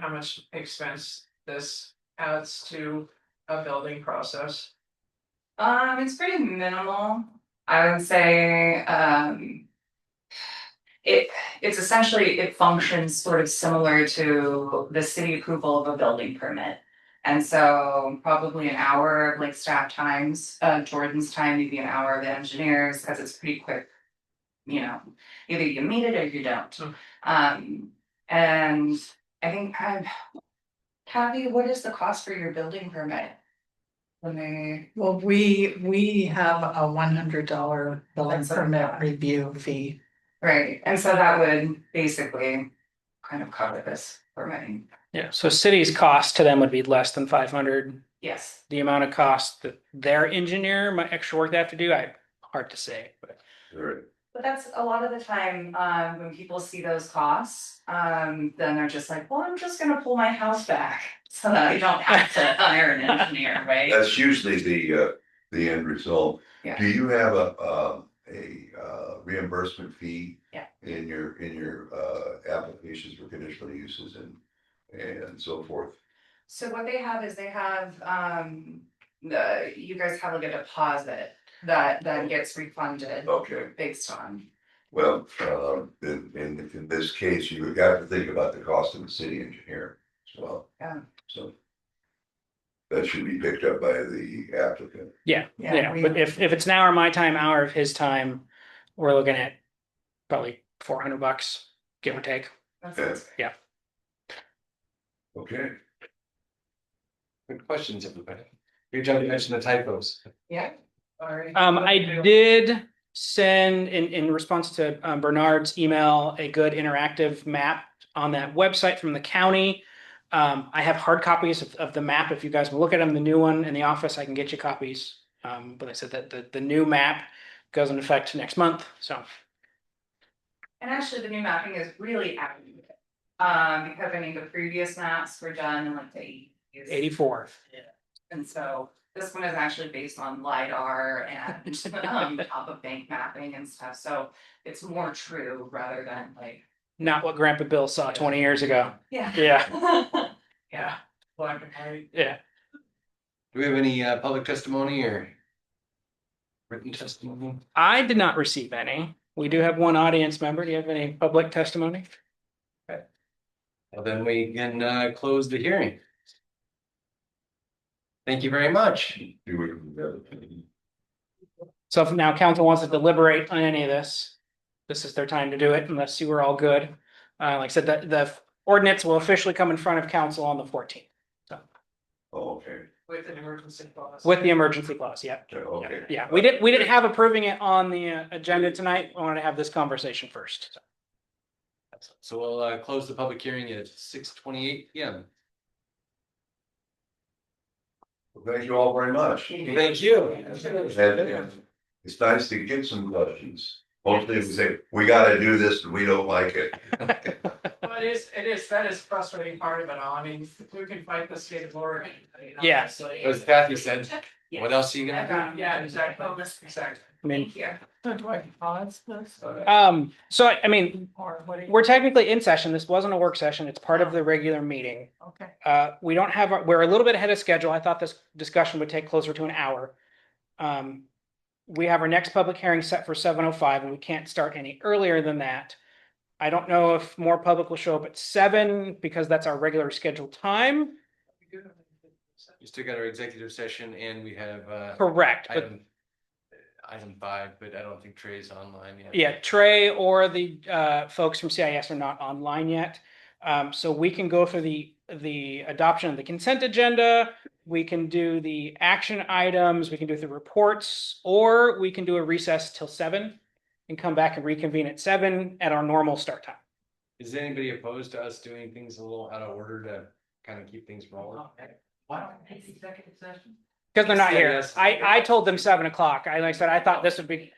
how much expense this adds to a building process. Um, it's pretty minimal, I would say, um. It, it's essentially, it functions sort of similar to the city approval of a building permit. And so probably an hour of like staff times, uh, Jordan's time, maybe an hour of the engineers, cause it's pretty quick. You know, either you meet it or you don't, Mm. um, and I think I've. Kathy, what is the cost for your building permit? When they. Well, we, we have a one hundred dollar building That's a permit lot. review fee. Right, and so that would basically kind of cover this for me. Yeah, so city's cost to them would be less than five hundred. Yes. The amount of cost that their engineer, my extra work they have to do, I, hard to say, but. But that's a lot of the time, um, when people see those costs, um, then they're just like, well, I'm just gonna pull my house back. So that I don't have to hire an engineer, right? That's usually the, uh, the end result. Yeah. Do you have a, um, a uh, reimbursement fee? Yeah. In your, in your, uh, applications for conditional uses and, and so forth? So what they have is they have, um, the, you guys have like a deposit that then gets refunded Okay, based on. well, um, in, in, in this case, you've got to think about the cost of the city engineer as well. Yeah. So. That should be picked up by the applicant. Yeah, Yeah, yeah, we- but if, if it's an hour of my time, hour of his time, we're looking at probably four hundred bucks, give or take. That sounds great. Okay, Good questions, everybody. Good job, you mentioned the typos. Yeah, Sorry. Um, I did send in, in response to um, Bernard's email, a good interactive map on that website from the county. Um, I have hard copies of, of the map. If you guys will look at them, the new one in the office, I can get you copies. Um, but I said that the, the new map goes into effect next month, so. And actually, the new mapping is really accurate. Um, because I mean, the previous maps were done in like the eighties. Eighty-four. And so this one is actually based on LiDAR and um top of bank mapping and stuff, so it's more true rather than like, Not what Grandpa Bill saw twenty years ago. yeah. Yeah, Yeah, black and white. yeah. Do we have any uh public testimony or? Written testimony? I did not receive any. We do have one audience member. Do you have any public testimony? Well, then we can uh close the hearing. Thank you very much. do we? So if now council wants to deliberate on any of this, this is their time to do it unless you were all good. Uh, like I said, the, the ordinance will officially come in front of council on the fourteenth Oh, okay, With an emergency clause. with the emergency clause. Yeah. okay. Yeah, we didn't, we didn't have approving it on the uh, agenda tonight. I wanted to have this conversation first. So we'll uh close the public hearing at six twenty eight P M. Well, Thank you all very much. Thank you. And- and It's nice to get some questions. Hopefully, we say, we gotta do this and we don't like it. Well, it is, it is, that is frustrating part of it all. I mean, who can fight the state of Oregon? I mean, Yeah. honestly. As Kathy said, what else are you I've gonna got- Yeah, exactly, exactly. I mean, Thank you. Do I pause this? um, so I I mean, Or what do you? we're technically in session. This wasn't a work session. It's part of the regular meeting. Okay. Uh, we don't have, our- we're a little bit ahead of schedule. I thought this discussion would take closer to an hour. Um, we have our next public hearing set for seven oh five and we can't start any earlier than that. I don't know if more public will show up at seven because that's our regular scheduled time. do? We still got our executive session and we have uh Correct, but item. Item five, but I don't think Trey's online yet. yeah, Trey or the uh folks from CIS are not online yet. Um, so we can go through the the adoption of the consent agenda. We can do the action items, we can do the reports, or we can do a recess till seven and come back and reconvene at seven at our normal start time. Is anybody opposed to us doing things a little out of order to kind of keep things rolling? Why don't we take executive session? Because they're not here. Yes. I I told them seven o'clock. I like I said, I thought this would be,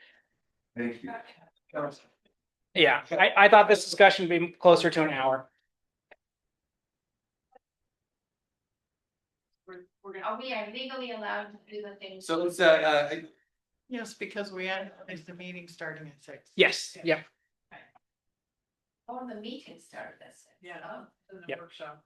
Thank you. yeah, I I thought this discussion would be closer to an hour. Are we are legally allowed to do the things? So let's, uh, uh, Yes, because we had, is the meeting starting at six? Yes, yep. All the meetings started this. Yeah. Oh, In the Yep. workshop.